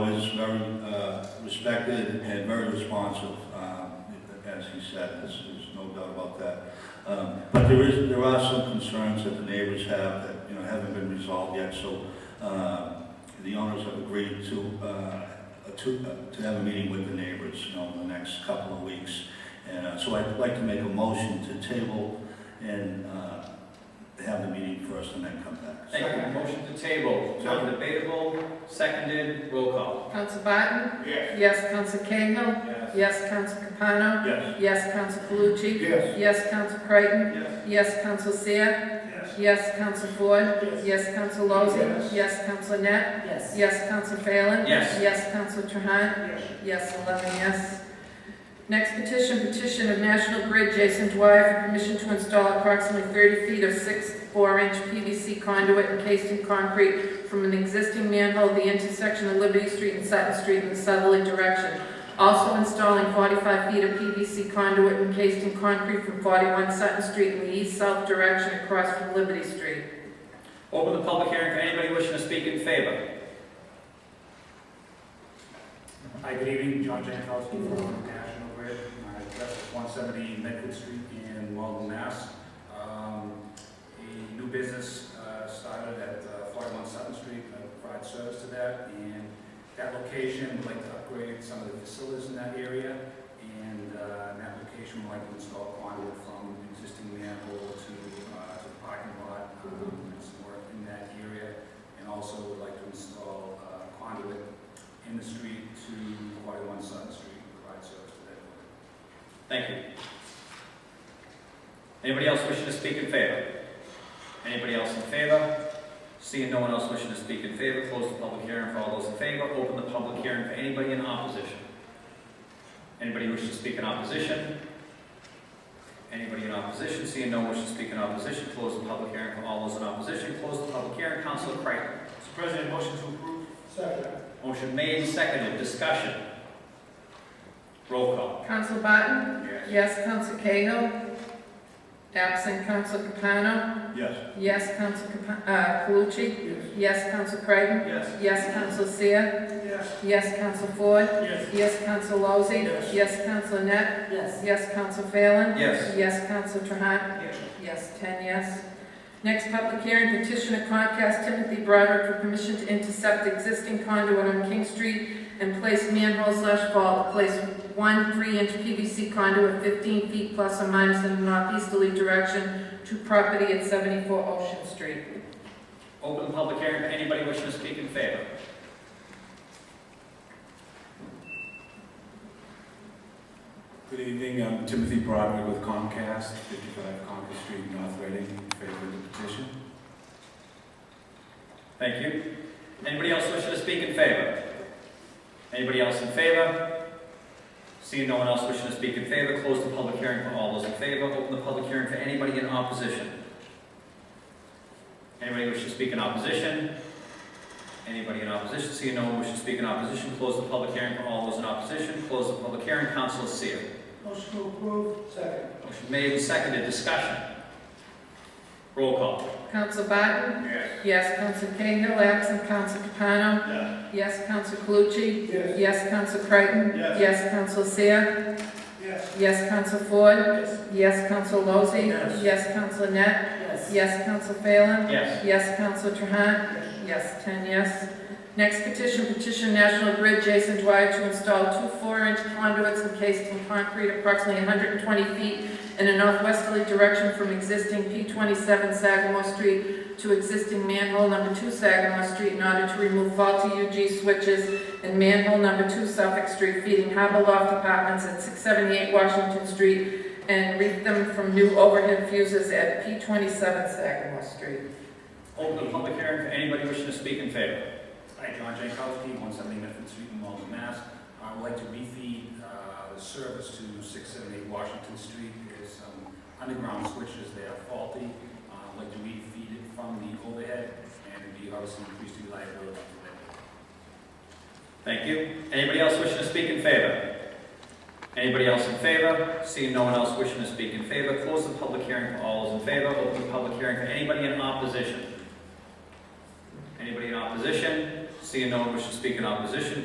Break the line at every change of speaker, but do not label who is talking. uh, respected and very responsive, um, as he said, there's, there's no doubt about that. Um, But there is, there are some concerns that the neighbors have that, you know, haven't been resolved yet, so um, the owners have agreed to, uh, to, uh, to have a meeting with the neighbors, you know, in the next couple of weeks. And uh, so I'd like to make a motion to table and uh, have the meeting first and then come back.
Thank you. Motion to table, non-debatable, seconded, roll call.
Counsel Barton?
Yes.
Yes, Counsel Cahill?
Yes.
Yes, Counsel Capano?
Yes.
Yes, Counsel Calucci?
Yes.
Yes, Counsel Creighton?
Yes.
Yes, Counsel Seer?
Yes.
Yes, Counsel Ford?
Yes.
Yes, Counsel Lozey?
Yes.
Yes, Counsel Net?
Yes.
Yes, Counsel Phelan?
Yes.
Yes, Counsel Trahan?
Yes.
Yes, eleven yes. Next petition, petition of National Grid Jason Dwyer for permission to install approximately thirty feet of six four-inch PVC conduit encased in concrete from an existing manhole at the intersection of Liberty Street and Sutton Street in the southerly direction. Also installing forty-five feet of PVC conduit encased in concrete from forty-one Sutton Street in the east-south direction across from Liberty Street.
Open the public hearing for anybody wishing to speak in favor.
Hi, good evening, John Jankowski from National Grid. My address is 170 Medford Street in Walden, Mass. Um, A new business uh, started at uh, 41 Sutton Street, I provide service to that, and that location, would like to upgrade some of the facilities in that area, and uh, in that location, would like to install conduit from existing manhole to uh, to the parking lot, um, and some work in that area, and also would like to install uh, conduit in the street to forty-one Sutton Street, provide service to that building.
Thank you. Anybody else wishing to speak in favor? Anybody else in favor? Seeing no one else wishing to speak in favor, close the public hearing for all those in favor. Open the public hearing for anybody in opposition. Anybody wishing to speak in opposition? Anybody in opposition? Seeing no one wishing to speak in opposition, close the public hearing for all those in opposition. Close the public hearing. Councilor Creighton.
Mr. President, motion to approve. Second.
Motion made, seconded, discussion. Roll call.
Counsel Barton?
Yes.
Yes, Counsel Cahill? Absent Counsel Capano?
Yes.
Yes, Counsel Capa- uh, Calucci?
Yes.
Yes, Counsel Creighton?
Yes.
Yes, Counsel Seer?
Yes.
Yes, Counsel Ford?
Yes.
Yes, Counsel Lozey?
Yes.
Yes, Counsel Net?
Yes.
Yes, Counsel Phelan?
Yes.
Yes, Counsel Trahan?
Yes.
Yes, ten yes. Next public hearing, petition of Comcast Timothy Broderick for permission to intercept existing conduit on King Street and place manhole slash vault, place one three-inch PVC conduit fifteen feet plus or minus in a northeasterly direction to property at seventy-four Ocean Street.
Open the public hearing for anybody wishing to speak in favor.
Good evening, I'm Timothy Broderick with Comcast, 55 Concord Street, North Reading, in favor of the petition.
Thank you. Anybody else wishing to speak in favor? Anybody else in favor? Seeing no one else wishing to speak in favor, close the public hearing for all those in favor. Open the public hearing for anybody in opposition. Anybody wishing to speak in opposition? Anybody in opposition? Seeing no one wishing to speak in opposition, close the public hearing for all those in opposition. Close the public hearing. Council Seer.
Motion to approve. Second.
Motion made and seconded. Discussion. Roll call.
Counsel Barton?
Yes.
Yes, Counsel Cahill, absent Counsel Capano?
Yes.
Yes, Counsel Calucci?
Yes.
Yes, Counsel Creighton?
Yes.
Yes, Counsel Seer?
Yes.
Yes, Counsel Ford?
Yes.
Yes, Counsel Lozey.
Yes.
Yes, Counsel Net.
Yes.
Yes, Counsel Phelan.
Yes.
Yes, Counsel Trahan. Yes, ten yes. Next petition, petition National Grid Jason Dwyer to install two four-inch conduits encased in concrete approximately 120 feet in a northwesterly direction from existing P27 Sagamore Street to existing manhole number two Sagamore Street in order to remove faulty UG switches and manhole number two Suffolk Street feeding Harbor Loft Apartments at 678 Washington Street and reap them from new overhead fuses at P27 Sagamore Street.
Open the public hearing for anybody wishing to speak in favor.
Hi, John Jankowski, 170 Medford Street in Malden, Mass. I would like to refeed uh, the service to 678 Washington Street. There's some underground switches that are faulty. Uh, I'd like to refeed it from the overhead and it'd be obviously increased reliability for that.
Thank you. Anybody else wishing to speak in favor? Anybody else in favor? Seeing no one else wishing to speak in favor, close the public hearing for all those in favor. Open the public hearing for anybody in opposition. Anybody in opposition? Seeing no one wishing to speak in opposition,